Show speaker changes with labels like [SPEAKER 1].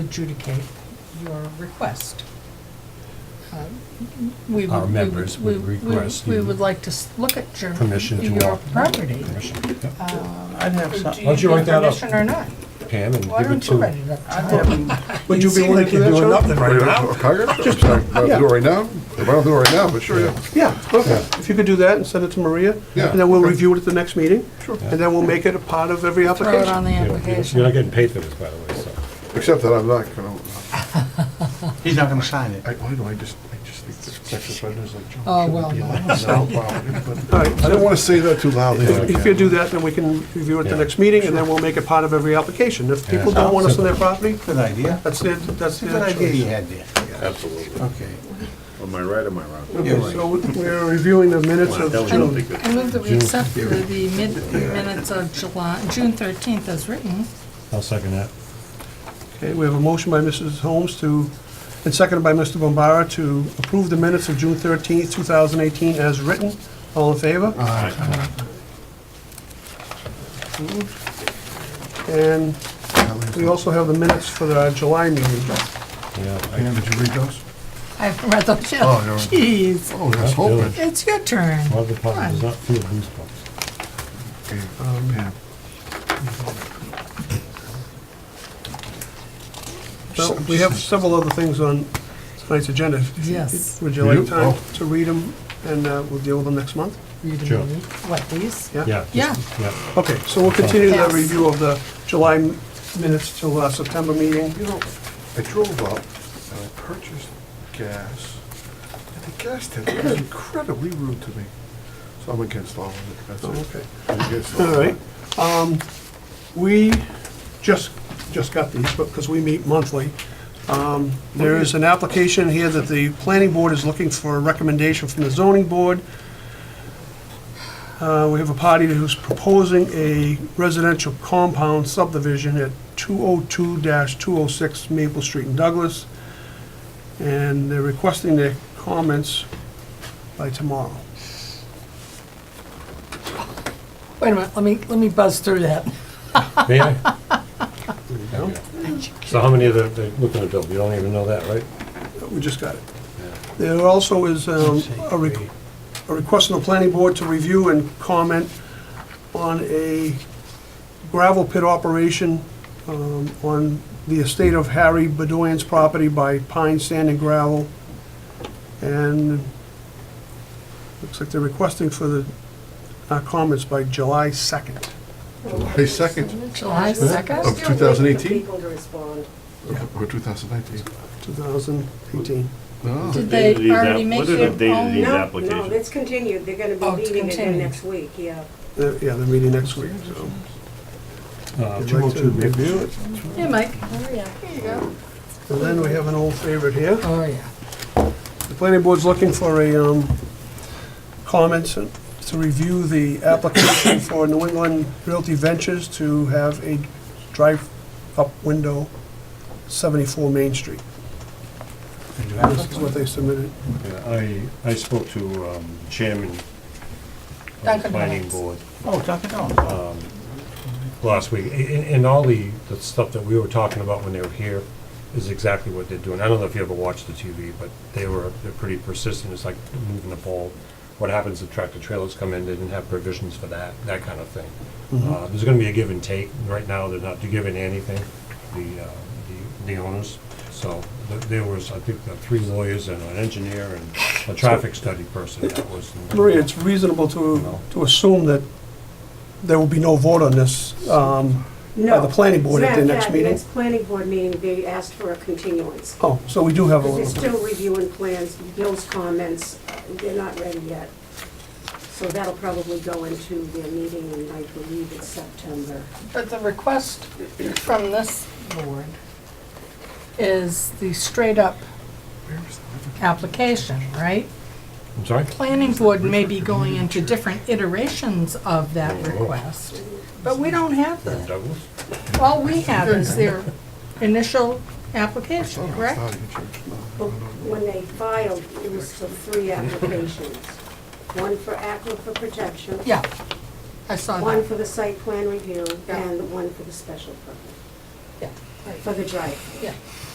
[SPEAKER 1] adjudicate your request. Uh, we
[SPEAKER 2] Our
[SPEAKER 1] would- we
[SPEAKER 2] members
[SPEAKER 1] we-
[SPEAKER 2] would
[SPEAKER 1] we-
[SPEAKER 2] request
[SPEAKER 1] We
[SPEAKER 2] you-
[SPEAKER 1] would like to s- look at your,
[SPEAKER 2] permission to
[SPEAKER 1] your
[SPEAKER 2] walk.
[SPEAKER 1] property.
[SPEAKER 2] Permission, yeah.
[SPEAKER 3] I'd have
[SPEAKER 1] Do
[SPEAKER 3] some,
[SPEAKER 2] Why
[SPEAKER 1] you
[SPEAKER 2] don't you write
[SPEAKER 1] need
[SPEAKER 2] that up?
[SPEAKER 1] permission or not?
[SPEAKER 2] Pam and
[SPEAKER 1] Why
[SPEAKER 2] give it
[SPEAKER 1] don't you write it
[SPEAKER 2] to.
[SPEAKER 1] up,
[SPEAKER 3] I'd
[SPEAKER 1] Tom?
[SPEAKER 3] have,
[SPEAKER 2] Would you be willing to do that, Joe?
[SPEAKER 4] Right now? Okay, sure. Sorry, I don't do it right now? If I don't do it right now, but sure, yeah.
[SPEAKER 5] Yeah, perfect. If you could do that and send it to Maria,
[SPEAKER 4] Yeah.
[SPEAKER 5] and then we'll review it at the next meeting.
[SPEAKER 4] Sure.
[SPEAKER 5] And then we'll make it a part of every
[SPEAKER 6] Throw it on
[SPEAKER 5] application.
[SPEAKER 6] the
[SPEAKER 2] You know, You're
[SPEAKER 6] application.
[SPEAKER 2] not getting paid for this, by the way, so.
[SPEAKER 4] Except that I'm not gonna,
[SPEAKER 3] he's not gonna sign it.
[SPEAKER 4] I, why do I just, I just think this Texas residents like Joe.
[SPEAKER 1] Oh, well,
[SPEAKER 5] All
[SPEAKER 4] I
[SPEAKER 5] right,
[SPEAKER 4] didn't
[SPEAKER 5] so
[SPEAKER 4] wanna say that too loudly.
[SPEAKER 5] if you do that, then we can review it at the
[SPEAKER 2] Yeah.
[SPEAKER 5] next meeting, and then we'll make it part of every application. If people don't want us on their property,
[SPEAKER 3] Good idea.
[SPEAKER 5] that's their, that's
[SPEAKER 3] It's a good
[SPEAKER 5] their
[SPEAKER 3] idea you
[SPEAKER 5] choice.
[SPEAKER 3] had there.
[SPEAKER 7] Absolutely.
[SPEAKER 3] Okay.
[SPEAKER 7] Am I right or am I wrong?
[SPEAKER 3] You're
[SPEAKER 5] Okay, so
[SPEAKER 3] right.
[SPEAKER 5] we're reviewing the minutes
[SPEAKER 7] Wow,
[SPEAKER 5] of
[SPEAKER 7] That was
[SPEAKER 5] June.
[SPEAKER 7] really good.
[SPEAKER 6] I move that we accept the the mid- minutes of July, June 13th as written.
[SPEAKER 2] I'll second that.
[SPEAKER 5] Okay, we have a motion by Mrs. Holmes to, and seconded by Mr. Bombara to approve the minutes of June 13th, 2018 as written. All in favor? Approved. And We also have the minutes for the July meeting.
[SPEAKER 2] Yeah.
[SPEAKER 4] Pam, did you read those?
[SPEAKER 6] I haven't read those yet.
[SPEAKER 4] Oh, no.
[SPEAKER 6] Jeez,
[SPEAKER 4] Oh, that's hoping.
[SPEAKER 6] it's your turn.
[SPEAKER 2] Well, the problem does not feel goosebumps.
[SPEAKER 4] Pam.
[SPEAKER 5] So we have several other things on tonight's agenda. If-
[SPEAKER 1] Yes.
[SPEAKER 5] Would you like
[SPEAKER 4] You-
[SPEAKER 5] time
[SPEAKER 4] oh.
[SPEAKER 5] to read them, and uh, we'll deal with them next month?
[SPEAKER 1] You didn't
[SPEAKER 2] Sure.
[SPEAKER 1] need- What, these?
[SPEAKER 5] Yeah?
[SPEAKER 2] Yeah. just-
[SPEAKER 6] Yeah.
[SPEAKER 2] Yeah.
[SPEAKER 5] Okay, so we'll continue the
[SPEAKER 6] Yes.
[SPEAKER 5] review of the July m- minutes till uh, September meeting.
[SPEAKER 4] You know, I drove up and I purchased gas, and the gas tank was incredibly rude to me. So I'm against all of it, that's
[SPEAKER 5] Oh,
[SPEAKER 4] it.
[SPEAKER 5] Okay.
[SPEAKER 4] I'm against
[SPEAKER 5] All
[SPEAKER 4] of it.
[SPEAKER 5] right. Um, We just, just got these, but, because we meet monthly. Um, There is an application here that the planning board is looking for a recommendation from the zoning board. Uh, We have a party who's proposing a residential compound subdivision at 202-206 Maple Street in Douglas. And they're requesting their comments by tomorrow.
[SPEAKER 1] Wait a minute, let me, let me buzz through that.
[SPEAKER 2] May I? There we go. So how many of the, they're looking to build? You don't even know that, right?
[SPEAKER 5] We just got it. There also is um, a re- a request from the planning board to review and comment on a gravel pit operation um, on the estate of Harry Bedoyan's property by Pine Sand and Gravel. And looks like they're requesting for the uh, comments by July 2nd.
[SPEAKER 4] July second
[SPEAKER 6] July 2nd?
[SPEAKER 4] of two thousand eighteen,
[SPEAKER 8] people to respond.
[SPEAKER 4] or two thousand nineteen.
[SPEAKER 5] 2018.
[SPEAKER 4] No.
[SPEAKER 6] Did
[SPEAKER 7] Date of
[SPEAKER 6] they
[SPEAKER 7] these app-
[SPEAKER 6] already make
[SPEAKER 7] What are the
[SPEAKER 6] their
[SPEAKER 7] date of these
[SPEAKER 6] own?
[SPEAKER 8] No, no,
[SPEAKER 7] applications?
[SPEAKER 8] it's continued, they're gonna
[SPEAKER 6] Oh,
[SPEAKER 8] be
[SPEAKER 6] it's
[SPEAKER 8] leaving again
[SPEAKER 6] continued.
[SPEAKER 8] next week, yeah.
[SPEAKER 5] They're- Uh, Yeah, they're meeting next week, so.
[SPEAKER 2] Uh,
[SPEAKER 5] Would you like to
[SPEAKER 2] 202 Maple
[SPEAKER 5] review
[SPEAKER 2] Street.
[SPEAKER 5] it?
[SPEAKER 6] Yeah, Mike.
[SPEAKER 5] And then we have an old favorite here.
[SPEAKER 1] Oh, yeah.
[SPEAKER 5] The planning board's looking for a, um, comments to review the application for New England Realty Ventures to have a drive-up window, 74 Main Street. This is what they submitted.
[SPEAKER 2] Yeah, I, I spoke to um, Chairman of the
[SPEAKER 1] Duncan
[SPEAKER 2] Planning
[SPEAKER 1] Hines.
[SPEAKER 2] Board
[SPEAKER 3] Oh, Dunkin' Donuts.
[SPEAKER 2] last week, A- and, and all the, the stuff that we were talking about when they were here is exactly what they're doing. I don't know if you ever watched the TV, but they were, they're pretty persistent, it's like moving the ball. What happens if tractor trailers come in, they didn't have provisions for that, that kind of thing. Uh, there's gonna be a give and take, right now, they're not giving anything, the, uh, the- the owners. So, th- there was, I think, uh, three lawyers and an engineer and a traffic study person that was.
[SPEAKER 5] Maria, it's reasonable to, to assume that there will be no vote on this, um, by
[SPEAKER 8] No.
[SPEAKER 5] the planning board at
[SPEAKER 8] Matter
[SPEAKER 5] their
[SPEAKER 8] of
[SPEAKER 5] next
[SPEAKER 8] fact,
[SPEAKER 5] meeting.
[SPEAKER 8] Next planning board meeting, they asked for a continuance.
[SPEAKER 5] Oh, so we do have a
[SPEAKER 8] Because they're
[SPEAKER 5] little bit.
[SPEAKER 8] still reviewing plans, Bill's comments, uh, they're not ready yet. So that'll probably go into their meeting, and I believe it's September.
[SPEAKER 6] But the request from this board
[SPEAKER 1] Is the straight-up application, right?
[SPEAKER 2] I'm sorry?
[SPEAKER 1] Planning board may be going into different iterations of that
[SPEAKER 7] Oh.
[SPEAKER 1] request, but we don't have that.
[SPEAKER 2] Douglas?
[SPEAKER 1] All we have is their initial application,
[SPEAKER 4] It's
[SPEAKER 1] correct?
[SPEAKER 4] not even changed.
[SPEAKER 8] But When they filed, it was for three applications. One for aquifer protection,
[SPEAKER 1] Yeah, I saw
[SPEAKER 8] one
[SPEAKER 1] that.
[SPEAKER 8] for the site plan review,
[SPEAKER 1] Yeah.
[SPEAKER 8] and one for the special permit.
[SPEAKER 1] Yeah.
[SPEAKER 9] for the drive.
[SPEAKER 8] Yeah.